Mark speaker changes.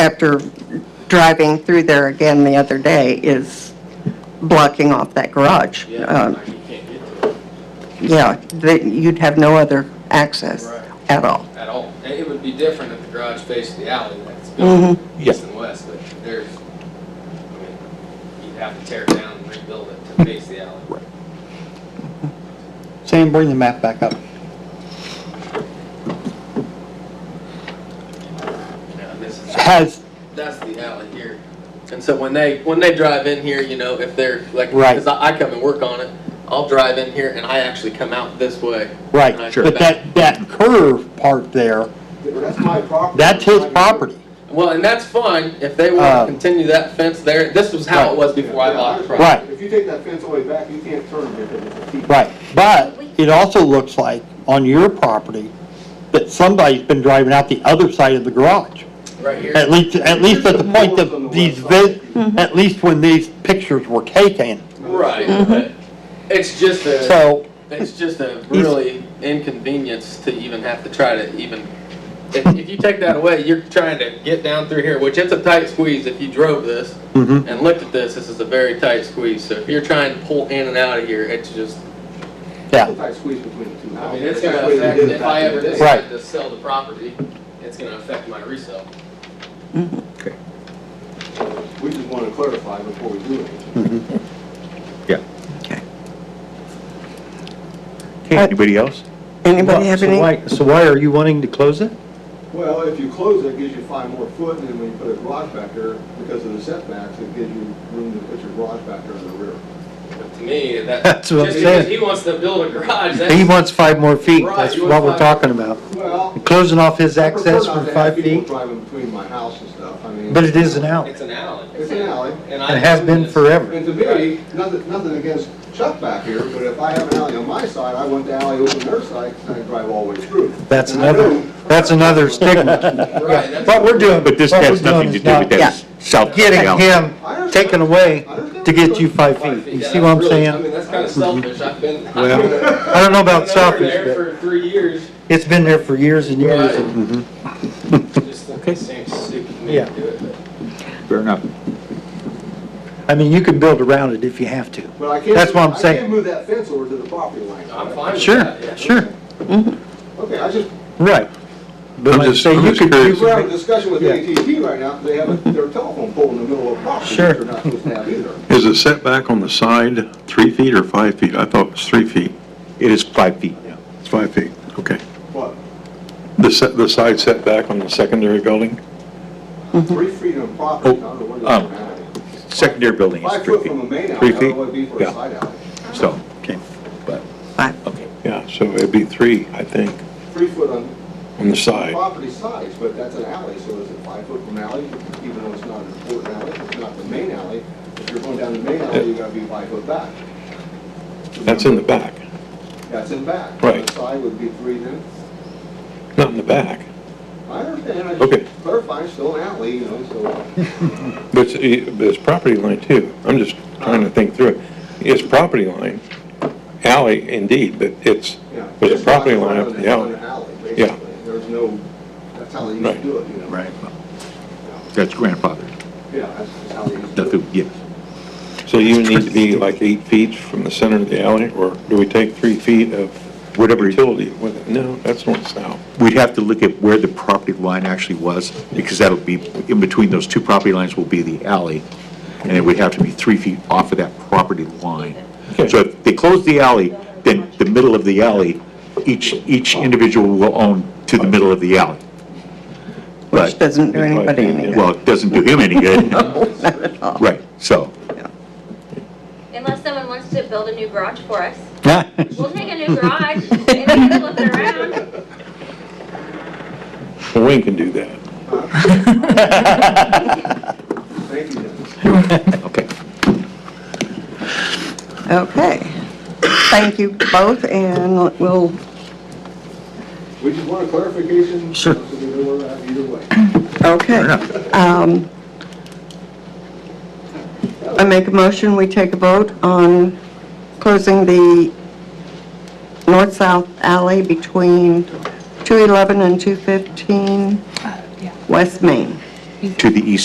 Speaker 1: after driving through there again the other day, is blocking off that garage.
Speaker 2: Yeah,
Speaker 3: Uh,
Speaker 1: Um,
Speaker 2: like you can't get to it
Speaker 1: Yeah, that you'd have no other access
Speaker 2: Right.
Speaker 1: at all.
Speaker 2: at all. And it would be different if the garage faced the alley like it's
Speaker 3: Mm-hmm.
Speaker 2: built east and west, but there's, I mean, you'd have to tear it down and rebuild it
Speaker 3: Mm-hmm.
Speaker 2: to face the alley.
Speaker 4: Sam, bring the map back up.
Speaker 2: Yeah, this is-
Speaker 4: Has,
Speaker 2: That's the alley here. And so when they, when they drive in here, you know, if they're like,
Speaker 4: Right.
Speaker 2: because I I come and work on it, I'll drive in here and I actually come out this way.
Speaker 4: right,
Speaker 2: And I go
Speaker 4: but
Speaker 2: back.
Speaker 4: that, that curve part there,
Speaker 5: Yeah, but that's my property.
Speaker 4: that's his property.
Speaker 2: Well, and that's fine if they want
Speaker 4: Uh,
Speaker 2: to continue that fence there. This was how it was before I bought the property.
Speaker 4: Right.
Speaker 5: If you take that fence all the way back, you can't turn it into a T.
Speaker 4: Right, but it also looks like on your property that somebody's been driving out the other side of the garage.
Speaker 2: Right here.
Speaker 4: At least, at least at the point that these, vis- at least when these pictures were taken.
Speaker 2: Right. but It's just a.
Speaker 4: So,
Speaker 2: It's just a really inconvenience to even have to try to even, if, if you take that away, you're trying to get down through here, which it's a tight squeeze if you drove this
Speaker 4: mhm.
Speaker 2: and looked at this, this is a very tight squeeze, so if you're trying to pull in and out of here, it's just.
Speaker 4: yeah,
Speaker 5: Sometimes squeeze between the two.
Speaker 2: I mean,
Speaker 5: houses.
Speaker 2: it's gonna
Speaker 5: That's the way they
Speaker 2: affect,
Speaker 5: did it
Speaker 2: if
Speaker 5: back
Speaker 2: I
Speaker 5: in
Speaker 2: ever
Speaker 5: the day.
Speaker 4: Right.
Speaker 2: decide to sell the property, it's gonna affect my resale.
Speaker 5: We just want to clarify before we do anything.
Speaker 6: Okay, anybody else?
Speaker 1: Uh, Anybody have any?
Speaker 3: So why are you wanting to close it?
Speaker 5: Well, if you close it, it gives you five more foot, and then when you put a garage back there, because of the setbacks, it gives you room to put your garage back there in the rear.
Speaker 2: But to me, that.
Speaker 3: That's what I'm
Speaker 2: just because
Speaker 3: saying.
Speaker 2: He wants to build a garage,
Speaker 3: He
Speaker 2: that's,
Speaker 3: wants five more feet,
Speaker 2: Right,
Speaker 3: that's
Speaker 2: you
Speaker 3: what we're
Speaker 2: want five-
Speaker 3: talking about.
Speaker 5: Well.
Speaker 3: Closing off his
Speaker 5: I prefer
Speaker 3: access
Speaker 5: not
Speaker 3: for
Speaker 5: to have
Speaker 3: five
Speaker 5: people
Speaker 3: feet,
Speaker 5: Driving between my house and stuff, I mean.
Speaker 3: but it is an alley.
Speaker 2: it's an alley.
Speaker 5: It's an alley.
Speaker 2: And I.
Speaker 3: It has been forever.
Speaker 5: And to me, nothing, nothing against Chuck back here, but if I have an alley on my side, I want the alley open their side, because I drive all the way through.
Speaker 3: That's
Speaker 5: And I
Speaker 3: another,
Speaker 5: know-
Speaker 3: that's another stigma.
Speaker 2: Right, that's.
Speaker 3: What we're doing,
Speaker 6: But this
Speaker 3: what
Speaker 6: has
Speaker 3: we're doing
Speaker 6: nothing to
Speaker 3: is
Speaker 6: do with
Speaker 3: not
Speaker 6: that south
Speaker 3: Getting
Speaker 6: alley.
Speaker 3: him taken away to get you five feet. You see what I'm
Speaker 2: I mean,
Speaker 3: saying?
Speaker 2: that's kind of selfish. I've been. I've
Speaker 3: Well,
Speaker 2: been
Speaker 3: I don't know about
Speaker 2: over
Speaker 3: selfish,
Speaker 2: there
Speaker 3: but
Speaker 2: for three years.
Speaker 3: it's been there for years and years. and-
Speaker 2: Just think it seems stupid to me
Speaker 3: Yeah.
Speaker 2: to do it, but.
Speaker 6: Fair enough.
Speaker 3: I mean, you can build around it if you have to.
Speaker 5: But I can't.
Speaker 3: That's what I'm
Speaker 5: I
Speaker 3: saying.
Speaker 5: can't move that fence over to the property line.
Speaker 2: I'm fine with
Speaker 3: Sure,
Speaker 2: that, yeah.
Speaker 3: sure,
Speaker 5: Okay, I just,
Speaker 3: right. But
Speaker 6: I'm
Speaker 3: like I
Speaker 6: just-
Speaker 3: say,
Speaker 6: I'm
Speaker 3: you
Speaker 6: just
Speaker 3: could
Speaker 6: curious.
Speaker 5: we're having
Speaker 3: do,
Speaker 5: a discussion with
Speaker 3: Yeah.
Speaker 5: AT&T right now, 'cause they have a- their telephone pole in the middle of a property that
Speaker 3: Sure.
Speaker 5: they're not supposed to have either.
Speaker 7: Is the setback on the side three feet or five feet? I thought it was three feet.
Speaker 6: It is five feet now.
Speaker 7: It's five feet, okay.
Speaker 5: What,
Speaker 7: The set, the side setback on the secondary building?
Speaker 3: Mm-hmm.
Speaker 5: three feet on property, I don't know what it's
Speaker 6: um,
Speaker 5: gonna
Speaker 6: Secondary building is
Speaker 5: Five
Speaker 6: three
Speaker 5: foot from a
Speaker 6: feet,
Speaker 5: main alley,
Speaker 6: Three
Speaker 5: I don't know
Speaker 6: feet?
Speaker 5: what it'd be for
Speaker 6: Yeah.
Speaker 5: a side alley.
Speaker 6: so,
Speaker 3: okay.
Speaker 1: Five.
Speaker 6: okay.
Speaker 7: Yeah, so it'd be three, I think,
Speaker 5: Three foot on
Speaker 7: on the side.
Speaker 5: property size, but that's an alley, so is it five foot from alley, even though it's not an important alley, it's not the main alley. If you're going down the main alley, you gotta be five foot back.
Speaker 7: That's in the back,
Speaker 5: That's in back.
Speaker 7: Right.
Speaker 5: The side would be three then.
Speaker 7: not in the back.
Speaker 5: I understand, I
Speaker 7: Okay.
Speaker 5: just clarify, it's still an alley, you know, so.
Speaker 7: But it's, but it's property line too. I'm just trying to think through it. It's property line, alley indeed, but it's,
Speaker 5: yeah.
Speaker 7: there's
Speaker 5: It's
Speaker 7: a property
Speaker 5: not
Speaker 7: line up
Speaker 5: on
Speaker 7: to
Speaker 5: an-
Speaker 7: the
Speaker 5: on
Speaker 7: alley.
Speaker 5: an alley,
Speaker 7: Yeah.
Speaker 5: basically. There's no, that's how they used to
Speaker 7: Right.
Speaker 5: do it, you know?
Speaker 6: Right. That's grandfather.
Speaker 5: Yeah, that's just how they used to do it.
Speaker 6: Nothing, yes.
Speaker 7: So you need to be like eight feet from the center of the alley, or do we take three feet of
Speaker 6: Whatever.
Speaker 7: utility with it? No, that's north south.
Speaker 6: We'd have to look at where the property line actually was, because that'll be, in between those two property lines will be the alley, and it would have to be three feet off of that property line.
Speaker 7: Okay.
Speaker 6: So if they close the alley, then the middle of the alley, each, each individual will own to the middle of the alley.
Speaker 1: Which
Speaker 6: But,
Speaker 1: doesn't do anybody any good.
Speaker 6: well, it doesn't do him any good.
Speaker 1: Not at all.
Speaker 6: Right, so.
Speaker 8: Unless someone wants to build a new garage for us. We'll take a new garage and we can flip it around.
Speaker 7: Well, Wayne can do that.
Speaker 5: Thank you, Dennis.
Speaker 6: Okay.
Speaker 1: Okay. Thank you both, and we'll,
Speaker 5: We just want a clarification. Sure. So we know where we're at either way.
Speaker 1: okay.
Speaker 6: Fair enough.
Speaker 1: Um, I make a motion, we take a vote on closing the north-south alley between 211 and 215 West Main.
Speaker 6: to the east